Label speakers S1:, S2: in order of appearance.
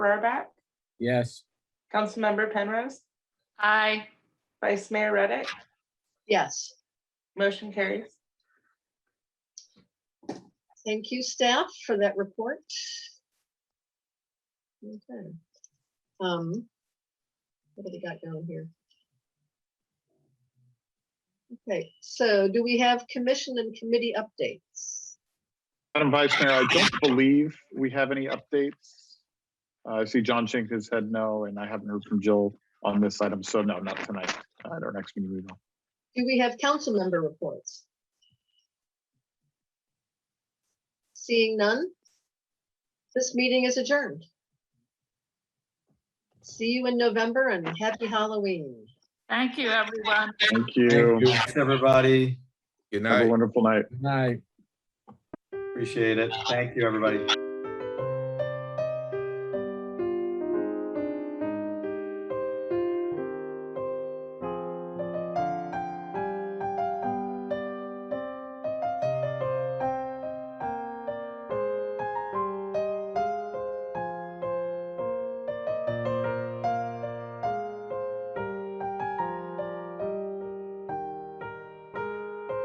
S1: Rohrbach,
S2: Yes.
S1: Councilmember Penrose,
S3: Aye.
S1: Vice Mayor Reddick,
S4: Yes,
S1: motion carries.
S4: thank you, staff, for that report. Okay. Um, What do we got down here? Okay, so do we have commission and committee updates?
S5: Madam Vice Mayor, I don't believe we have any updates. Uh, I see John Chink has said no, and I haven't heard from Jill on this item, so no, not tonight, Uh, at our next meeting. we will.
S4: Do we have council member reports? Seeing none? This meeting is adjourned. See you in November and happy Halloween.
S3: Thank you, everyone.
S5: Thank
S6: Thank you,
S5: you.
S6: Thanks, everybody.
S2: Good
S5: Have a wonderful night.
S6: Good night. Appreciate it. Thank you, everybody.